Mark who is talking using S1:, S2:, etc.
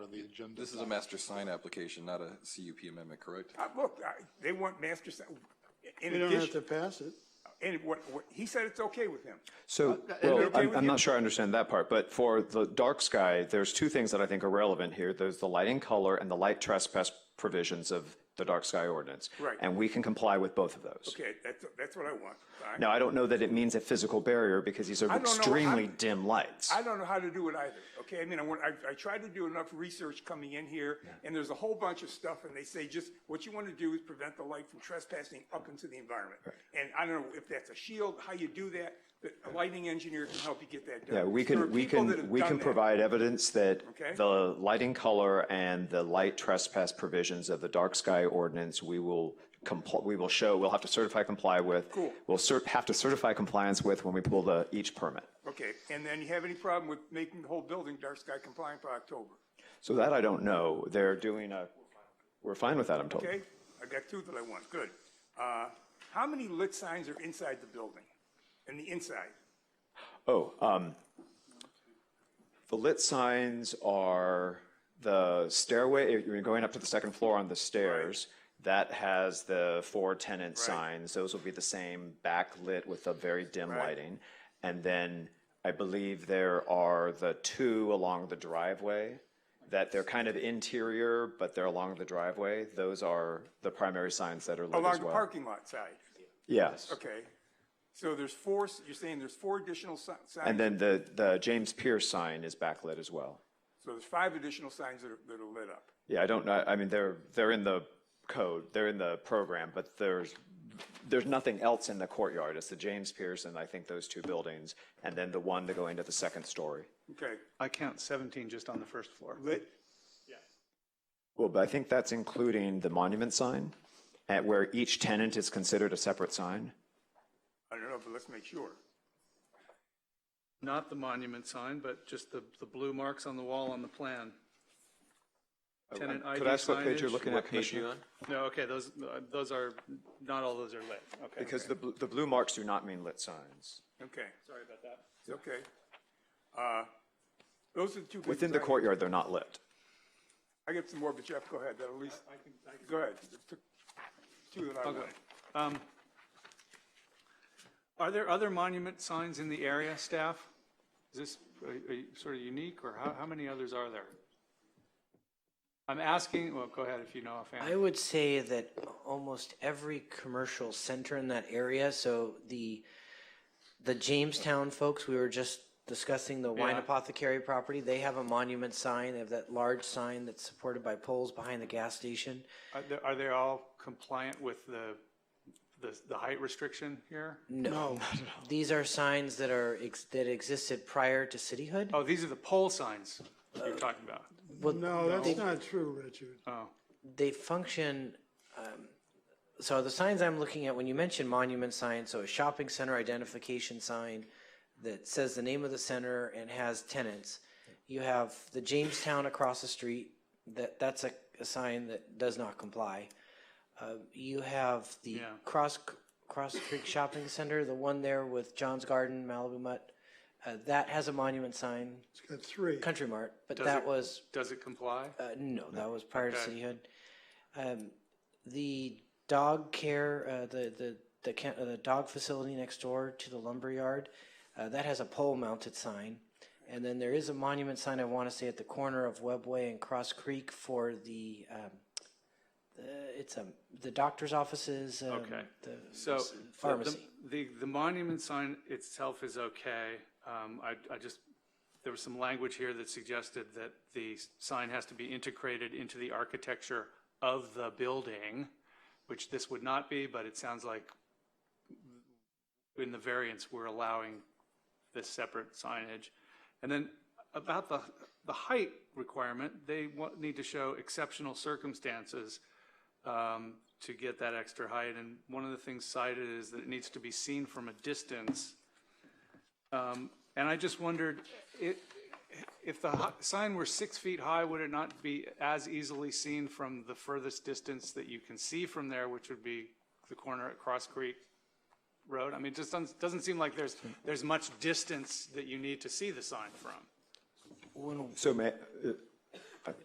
S1: on the agenda.
S2: This is a master sign application, not a CUP amendment, correct?
S3: Uh, Look, I- they want master, si- in
S1: We don't have to
S3: addition,
S1: pass it.
S3: and what, what, he said it's okay with him.
S4: So,
S3: okay
S4: well,
S3: with
S4: I'm, I'm
S3: you?
S4: not sure I understand that part, but for the dark sky, there's two things that I think are relevant here. There's the light and color and the light trespass provisions of the dark sky ordinance.
S3: Right.
S4: And we can comply with both of those.
S3: Okay, that's, that's what I want. All right.
S4: Now, I don't know that it means a physical barrier because these are
S3: don't know.
S4: extremely
S3: I'm-
S4: dim lights.
S3: I don't know how to do it either, okay? I mean, I want, I, I tried to do enough research coming in here, and there's a whole bunch of stuff, and they say just, what you want to do is prevent the light from trespassing up into the environment. And I don't know if that's a shield, how you do that, but a lighting engineer can help you get that done.
S4: Yeah, we
S3: There are
S4: can, we
S3: people that
S4: can,
S3: have
S4: we
S3: done
S4: can
S3: that.
S4: provide evidence that
S3: Okay.
S4: the lighting color and the light trespass provisions of the dark sky ordinance, we will comply, we will show, we'll have to certify comply with.
S3: Cool.
S4: We'll cert, have to certify compliance with when we pull the, each permit.
S3: Okay, and then you have any problem with making the whole building dark sky compliant by October?
S4: So that I don't know. They're doing a, we're fine with that, I'm told.
S3: Okay, I got two that I want, good. Uh, How many lit signs are inside the building, in the inside?
S4: Oh, um, the lit signs are the stairway, if you're going up to the second floor on the stairs. That has the four tenant signs. Those will be the same backlit with a very dim lighting. And then I believe there are the two along the driveway that they're kind of interior, but they're along the driveway. Those are the primary signs that are lit as well.
S3: Along the parking lot side,
S4: Yes.
S3: okay. So there's four, you're saying there's four additional si-
S4: And
S3: signs,
S4: then the, the James Pierce sign is backlit as well.
S3: so there's five additional signs that are, that are lit up.
S4: Yeah, I don't know, I mean, they're, they're in the code, they're in the program, but there's, there's nothing else in the courtyard. It's the James Pierce and I think those two buildings, and then the one to go into the second story.
S3: Okay,
S5: I count 17 just on the first floor.
S3: lit,
S4: Well, but I think that's including the monument sign, at where each tenant is considered a separate sign.
S3: I don't know, but let's make sure.
S5: Not the monument sign, but just the, the blue marks on the wall on the plan. Tenant ID
S4: Oh, Could I ask what page you're
S5: signage?
S4: looking at, Commissioner?
S5: No, okay, those, uh, those are, not all those are lit. Okay.
S4: Because the, bl- the blue marks do not mean lit signs.
S3: Okay,
S5: Sorry about that.
S3: it's okay. Uh, Those are the two. big
S4: Within the
S3: signs.
S4: courtyard, they're not lit.
S3: I got some more, but Jeff, go ahead, that'll at least, go ahead. Two that I
S5: Okay.
S3: want.
S5: Um, Are there other monument signs in the area, staff? Is this uh, uh, sort of unique, or how, how many others are there? I'm asking, well, go ahead if you know offhand.
S6: I would say that almost every commercial center in that area, so the, the Jamestown folks, we were just discussing the wine
S5: Yeah.
S6: apothecary property, they have a monument sign, they have that large sign that's supported by poles behind the gas station.
S5: Are they, are they all compliant with the, the, the height restriction here?
S6: No, these are signs that are, ex- that existed prior to cityhood.
S5: Oh, these are the pole signs you're talking about.
S6: Well,
S1: No, that's not true, Richard.
S6: they function, um, so the signs I'm looking at, when you mention monument sign, so a shopping center identification sign that says the name of the center and has tenants. You have the Jamestown across the street, that, that's a, a sign that does not comply. Uh, you have the
S5: Yeah.
S6: Cross, Cross Creek Shopping Center, the one there with John's Garden, Malibu Mutt. Uh, that has a monument sign,
S1: It's got three.
S6: Country Mart, but that
S5: it-
S6: was
S5: Does it comply?
S6: uh, no, that was prior to
S5: Okay.
S6: cityhood. Um, the dog care, uh, the, the, the, ca- uh, the dog facility next door to the lumber yard, uh, that has a pole mounted sign. And then there is a monument sign, I want to say at the corner of Webway and Cross Creek for the, um, the, it's a, the doctor's offices, um,
S5: Okay.
S6: the
S5: So. the- the-
S6: pharmacy.
S5: The, the monument sign itself is okay. Um, I, I just, there was some language here that suggested that the sign has to be integrated into the architecture of the building, which this would not be, but it sounds like in the variance, we're allowing this separate signage. And then about the, the height requirement, they want, need to show exceptional circumstances um, to get that extra height. And one of the things cited is that it needs to be seen from a distance. Um, And I just wondered, i- if the hi- sign were six feet high, would it not be as easily seen from the furthest distance that you can see from there, which would be the corner at Cross Creek Road? I mean, it just doesn't, doesn't seem like there's, there's much distance that you need to see the sign from.
S4: So may, uh,